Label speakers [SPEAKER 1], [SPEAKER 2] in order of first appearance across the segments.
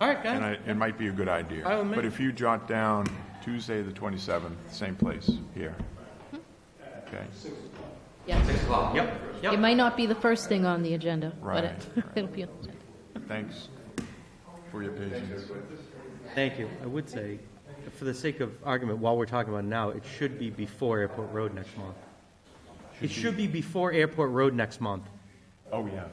[SPEAKER 1] Okay.
[SPEAKER 2] And I, it might be a good idea.
[SPEAKER 1] By all means.
[SPEAKER 2] But if you jot down Tuesday, the 27th, same place, here. Okay,
[SPEAKER 3] Yes.
[SPEAKER 1] Yep,
[SPEAKER 3] It
[SPEAKER 1] yep.
[SPEAKER 3] might not be the first thing on the agenda,
[SPEAKER 2] Right,
[SPEAKER 3] but it-
[SPEAKER 2] right.
[SPEAKER 3] it'll be on the agenda.
[SPEAKER 2] thanks for your patience.
[SPEAKER 1] Thank you. I would say, for the sake of argument, while we're talking about it now, it should be before Airport Road next month. It should be before Airport Road next month.
[SPEAKER 2] Oh, yeah.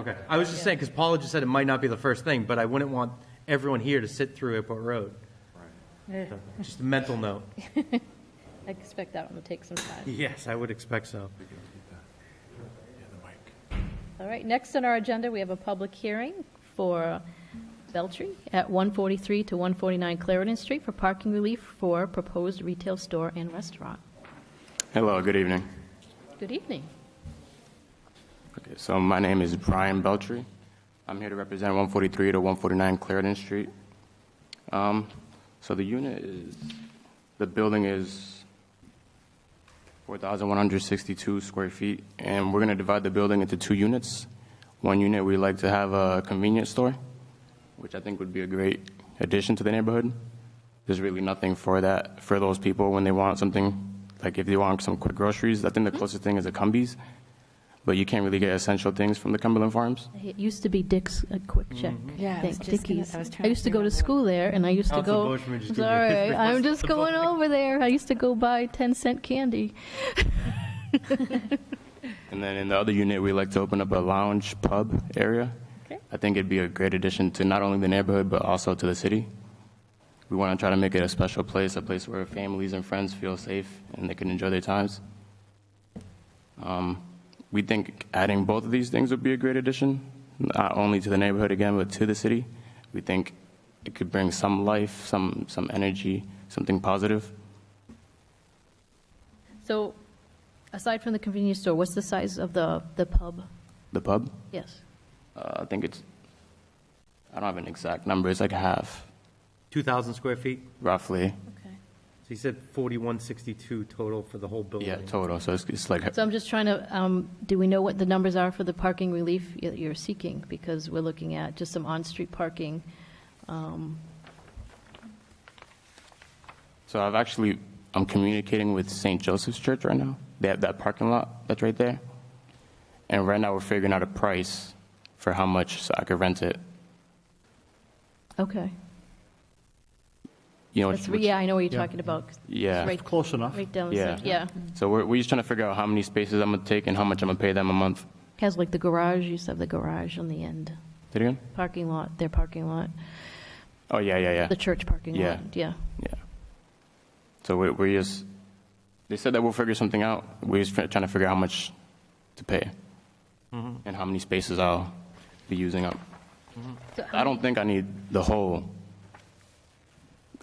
[SPEAKER 1] Okay. I was just saying, because Paula just said it might not be the first thing, but I wouldn't want everyone here to sit through Airport Road. So, Just a mental note.
[SPEAKER 3] I expect that one will take some time.
[SPEAKER 1] Yes, I would expect so.
[SPEAKER 3] All right, next on our agenda, we have a public hearing for Beltry at 143 to 149 Clarendon Street for parking relief for proposed retail store and restaurant.
[SPEAKER 4] Hello, good evening.
[SPEAKER 3] Good evening.
[SPEAKER 4] Okay, so my name is Brian Beltry. I'm here to represent 143 to 149 Clarendon Street. Um, So the unit is, the building is 4,162 square feet, and we're going to divide the building into two units. One unit, we like to have a convenience store, which I think would be a great addition to the neighborhood. There's really nothing for that, for those people when they want something, like if they want some quick groceries. I think the closest thing is a Cumbies, but you can't really get essential things from the Cumberland Farms.
[SPEAKER 3] It used to be Dick's, a quick check.
[SPEAKER 5] Yeah, I
[SPEAKER 3] Think
[SPEAKER 5] was just gonna-
[SPEAKER 3] Dickies.
[SPEAKER 5] I was trying
[SPEAKER 3] I
[SPEAKER 5] to
[SPEAKER 3] used to go to
[SPEAKER 5] remember.
[SPEAKER 3] school there, and I used to
[SPEAKER 1] Council Boschman
[SPEAKER 3] go.
[SPEAKER 1] just gave me a
[SPEAKER 3] Sorry,
[SPEAKER 1] fist
[SPEAKER 3] I'm
[SPEAKER 1] bump.
[SPEAKER 3] just going over there. I used to go buy 10 cent candy.
[SPEAKER 4] And then in the other unit, we like to open up a lounge pub area.
[SPEAKER 3] Okay.
[SPEAKER 4] I think it'd be a great addition to not only the neighborhood, but also to the city. We want to try to make it a special place, a place where families and friends feel safe and they can enjoy their times. Um, we think adding both of these things would be a great addition, not only to the neighborhood again, but to the city. We think it could bring some life, some, some energy, something positive.
[SPEAKER 3] So, aside from the convenience store, what's the size of the, the pub?
[SPEAKER 4] The pub,
[SPEAKER 3] Yes.
[SPEAKER 4] uh, I think it's, I don't have an exact number, it's like half.
[SPEAKER 1] 2,000 square feet?
[SPEAKER 4] roughly.
[SPEAKER 3] Okay.
[SPEAKER 1] So you said 4162 total for the whole building?
[SPEAKER 4] Yeah, total. So it's, it's like
[SPEAKER 3] So I'm just trying to, um, do we know what the numbers are for the parking relief y- you're seeking? Because we're looking at just some on-street parking.
[SPEAKER 4] so. I've actually I'm communicating with St. Joseph's Church right now. They have that parking lot that's right there, and right now we're figuring out a price for how much so I could rent it.
[SPEAKER 3] Okay.
[SPEAKER 4] You know,
[SPEAKER 3] That's,
[SPEAKER 4] which-
[SPEAKER 3] yeah, I know what you're talking about. 'cause it's
[SPEAKER 4] Yeah.
[SPEAKER 3] Right,
[SPEAKER 6] Close enough.
[SPEAKER 3] right down the
[SPEAKER 4] yeah,
[SPEAKER 3] center, yeah.
[SPEAKER 4] So we're we're just trying to figure out how many spaces I'm gonna take and how much I'm gonna pay them a month.
[SPEAKER 3] Has like the garage, you said the garage on the end,
[SPEAKER 4] Say it again?
[SPEAKER 3] parking lot, their parking lot,
[SPEAKER 4] Oh yeah, yeah, yeah.
[SPEAKER 3] the church parking
[SPEAKER 4] Yeah.
[SPEAKER 3] lot, yeah.
[SPEAKER 4] Yeah. So we, we just, they said that we'll figure something out. We're just try- trying to figure out how much to pay and how many spaces I'll be using up.
[SPEAKER 3] So
[SPEAKER 1] um,
[SPEAKER 4] I don't think I need the whole,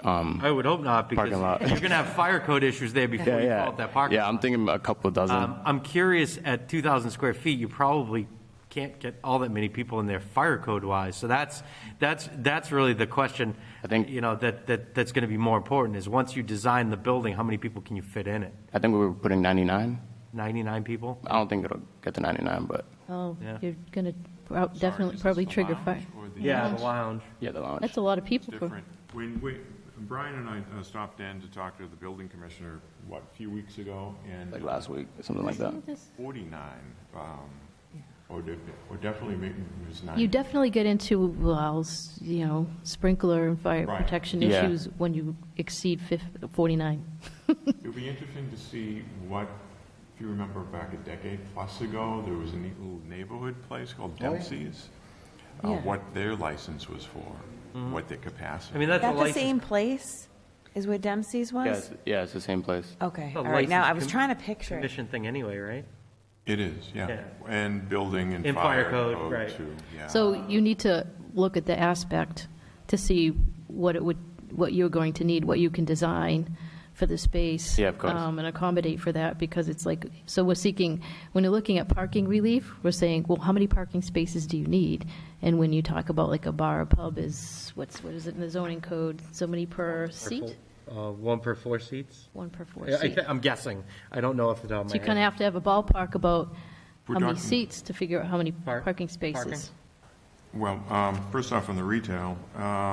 [SPEAKER 1] I would hope not, because
[SPEAKER 4] Parking lot.
[SPEAKER 1] you're going to have fire code issues there before you call it that parking.
[SPEAKER 4] Yeah, I'm thinking a couple dozen.
[SPEAKER 1] Um, I'm curious, at 2,000 square feet, you probably can't get all that many people in there fire code-wise. So that's, that's, that's really the question.
[SPEAKER 4] I think-
[SPEAKER 1] You know, that, that, that's going to be more important, is once you design the building, how many people can you fit in it?
[SPEAKER 4] I think we were putting 99.
[SPEAKER 1] 99 people?
[SPEAKER 4] I don't think it'll get to 99, but
[SPEAKER 3] Oh,
[SPEAKER 1] Yeah.
[SPEAKER 3] you're gonna prob- definitely, probably trigger fire.
[SPEAKER 1] Yeah, the lounge.
[SPEAKER 4] yeah, the lounge.
[SPEAKER 3] That's a lot of people. for-
[SPEAKER 2] Different. When, we, Brian and I uh, stopped in to talk to the building commissioner, what, a few weeks ago? And
[SPEAKER 4] Like last week, something like that.
[SPEAKER 2] 49, um, or def- or definitely maybe it was 90.
[SPEAKER 3] You definitely get into, well, s- you know, sprinkler and fire
[SPEAKER 2] Right.
[SPEAKER 3] protection
[SPEAKER 4] Yeah.
[SPEAKER 3] issues when you exceed fif- 49.
[SPEAKER 2] It'd be interesting to see what, if you remember back a decade plus ago, there was a neat little neighborhood place called
[SPEAKER 1] Oh,
[SPEAKER 2] Dempsey's. Uh, what their license was for, what their capacity.
[SPEAKER 1] Mm-hmm. I mean, that's a
[SPEAKER 5] That the
[SPEAKER 1] license.
[SPEAKER 5] same place is where Dempsey's
[SPEAKER 4] Yeah,
[SPEAKER 5] was?
[SPEAKER 4] it's, yeah, it's the same place.
[SPEAKER 5] Okay,
[SPEAKER 1] It's a
[SPEAKER 5] all right, now,
[SPEAKER 1] license
[SPEAKER 5] I was
[SPEAKER 1] com-
[SPEAKER 5] trying to picture. it.
[SPEAKER 1] Commission thing anyway, right?
[SPEAKER 2] It is, yeah.
[SPEAKER 1] Yeah.
[SPEAKER 2] And building and
[SPEAKER 1] And
[SPEAKER 2] fire
[SPEAKER 1] fire
[SPEAKER 2] code.
[SPEAKER 1] code, right.
[SPEAKER 2] too, yeah.
[SPEAKER 3] So you need to look at the aspect to see what it would, what you're going to need, what you can design for the space.
[SPEAKER 4] Yeah, of course.
[SPEAKER 3] um, And accommodate for that, because it's like, so we're seeking, when you're looking at parking relief, we're saying, well, how many parking spaces do you need? And when you talk about like a bar or pub is, what's, what is it in the zoning code? So many per seat?
[SPEAKER 1] Uh, One per four seats?
[SPEAKER 3] One per four
[SPEAKER 1] I- I
[SPEAKER 3] seat.
[SPEAKER 1] thi- I'm guessing. I don't know off the top of
[SPEAKER 3] So
[SPEAKER 1] my
[SPEAKER 3] you kind
[SPEAKER 1] head.
[SPEAKER 3] of have to have a ballpark about
[SPEAKER 2] We're
[SPEAKER 3] how many
[SPEAKER 2] talking-
[SPEAKER 3] seats to figure out how many
[SPEAKER 1] Park- parking.
[SPEAKER 3] parking spaces.
[SPEAKER 2] Well, um, first off, on the retail,